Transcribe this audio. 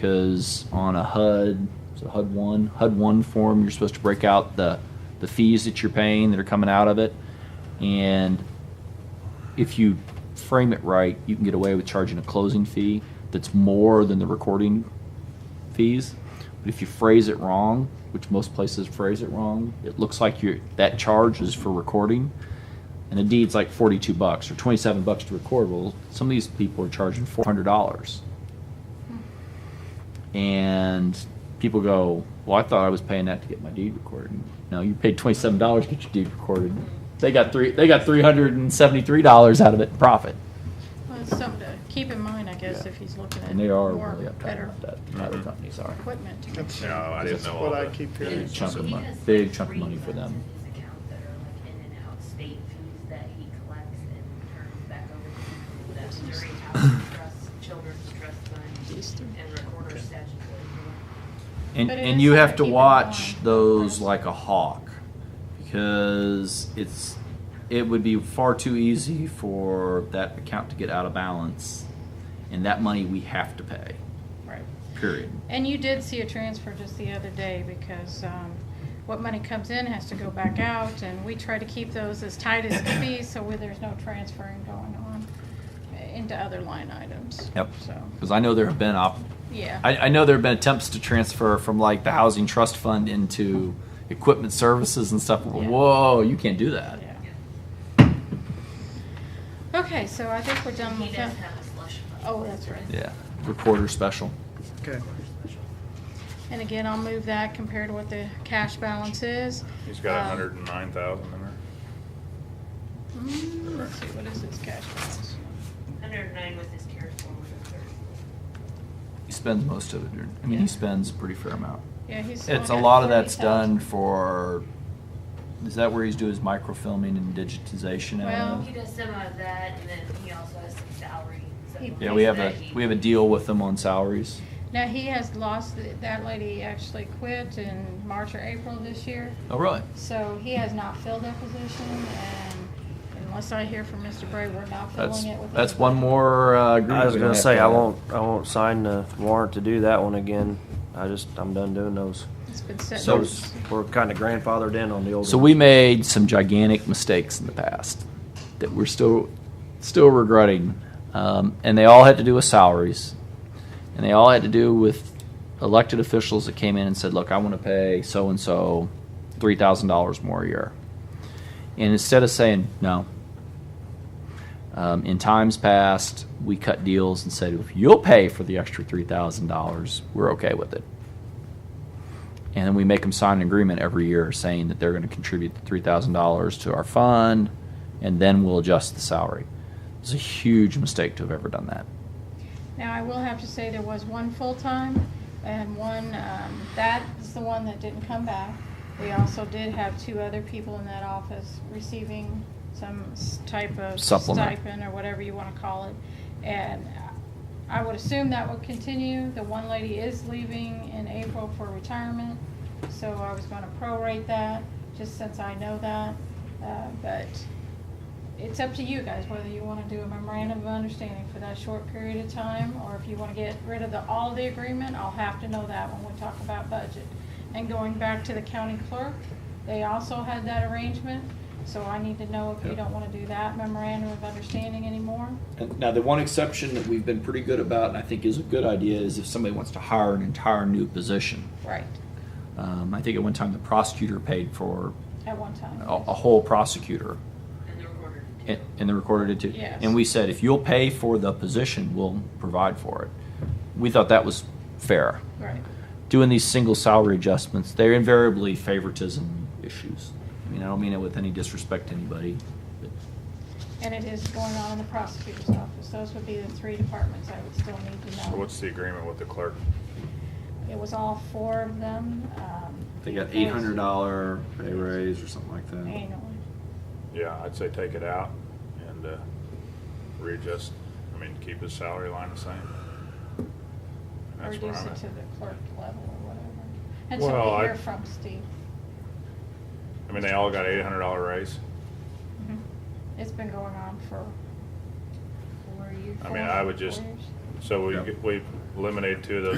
because on a HUD, so HUD one, HUD one form, you're supposed to break out the, the fees that you're paying that are coming out of it. And if you frame it right, you can get away with charging a closing fee that's more than the recording fees. But if you phrase it wrong, which most places phrase it wrong, it looks like you that charge is for recording, and the deed's like forty-two bucks or twenty-seven bucks to record. Well, some of these people are charging four hundred dollars, and people go, "Well, I thought I was paying that to get my deed recorded." No, you paid twenty-seven dollars to get your deed recorded. They got three. They got three hundred and seventy-three dollars out of it in profit, Well, it's something to keep in mind, I guess, Yeah. if he's looking at and they are more, really uptight better about that. and Other companies are. equipment to That's- No, I didn't that's know all What I that. keep Big hearing. chunk of He money- has big chunk of money for refunds them. in his account that are like in and out state fees that he collects and turns back over to the Missouri Housing Trust, Children's Trust Fund, and Recorder's Statutory. And, But it and is you something have to to keep in watch mind. those like a hawk because it's it would be far too easy for that account to get out of balance and that money we have to pay Right. period And you did see a transfer just the other day because um, what money comes in has to go back out, and we try to keep those as tight as can be so where there's no transferring going on into other line items. Yep. So, because i know there have been op- yeah. I, I know there have been attempts to transfer from like the housing trust fund into equipment services and stuff Yeah. whoa you can't do that Yeah. Okay, so I think we're done He with does that. have a slush fund. Oh, that's right. yeah recorder special Okay. And again, I'll move that compared to what the cash balance is. He's got a Um, hundred and nine thousand in there. Mm, Let's see, what is his cash balance? Hundred and nine with his tier four, one he spends most of it during, i mean Yeah. he spends a pretty fair amount Yeah, It's he's. a only got lot of that's 40,000. done for. Is that where he's doing his microfilming and digitization? Well- thirty. of Um, He it? does some of that, and then he also has some salary. some He- yeah, we have a things that he- we have a deal with them on salaries. Now, he has lost, that lady actually quit in March or April this year, Oh, really? so he has not filled that position, and unless I hear from Mr. Bray, we're not That's filling it with. that's anybody. one more. Uh, agreement I was we gonna have say to- I won't I won't sign the warrant to do that one again. I just I'm done doing those. It's been set. So- Those we're kind of grandfathered in on the old. So one. we made some gigantic mistakes in the past that we're still still regretting, um, and they all had to do with salaries, and they all had to do with elected officials that came in and said, "Look, I want to pay so and so three thousand dollars more a year," and instead of saying no. Um, in times past, we cut deals and said, if you'll pay for the extra $3,000, we're okay with it and then we make them sign an agreement every year saying that they're going to contribute three thousand dollars to our fund, and then we'll adjust the salary. It's a huge mistake to have ever done that. Now, I will have to say, there was one full-time and one, um, that is the one that didn't come back. We also did have two other people in that office receiving some s- type of Supplement. stipend or whatever you want to call it. And I would assume that would continue. The one lady is leaving in April for retirement, so I was going to prorate that, just since I know that. Uh, But it's up to you guys whether you want to do a memorandum of understanding for that short period of time, or if you want to get rid of the, all the agreement, I'll have to know that when we talk about budget. And going back to the county clerk, they also had that arrangement, so I need to know if you Yep. don't want to do that memorandum of understanding anymore. And now, the one exception that we've been pretty good about, and I think is a good idea, is if somebody wants to hire an entire new position. Right. Um, I think at one time the prosecutor paid for At one a, time. Oh, a whole prosecutor, And the recorder too. and, and the recorder did too. Yes. And we said, if you'll pay for the position, we'll provide for it. We thought that was fair. Right. doing these single salary adjustments, they're invariably favoritism issues. I mean, I don't mean it with any disrespect to anybody. but And it is going on in the prosecutor's office. Those would be the three departments I would still need to know. So what's the agreement with the clerk? It was all four of them, um. They got it eight was hundred dollar pay raise or something like that. Annually. Yeah, I'd say take it out and, uh, readjust, I mean, keep his salary line the same. That's where reduce I'm it at. to the clerk level or whatever. Until Well, we I- hear from Steve. I mean, they all got eight hundred dollar raise. Mhm. It's been going on for. Were you I mean, I would four just, years. so we, Yeah. we eliminated two of those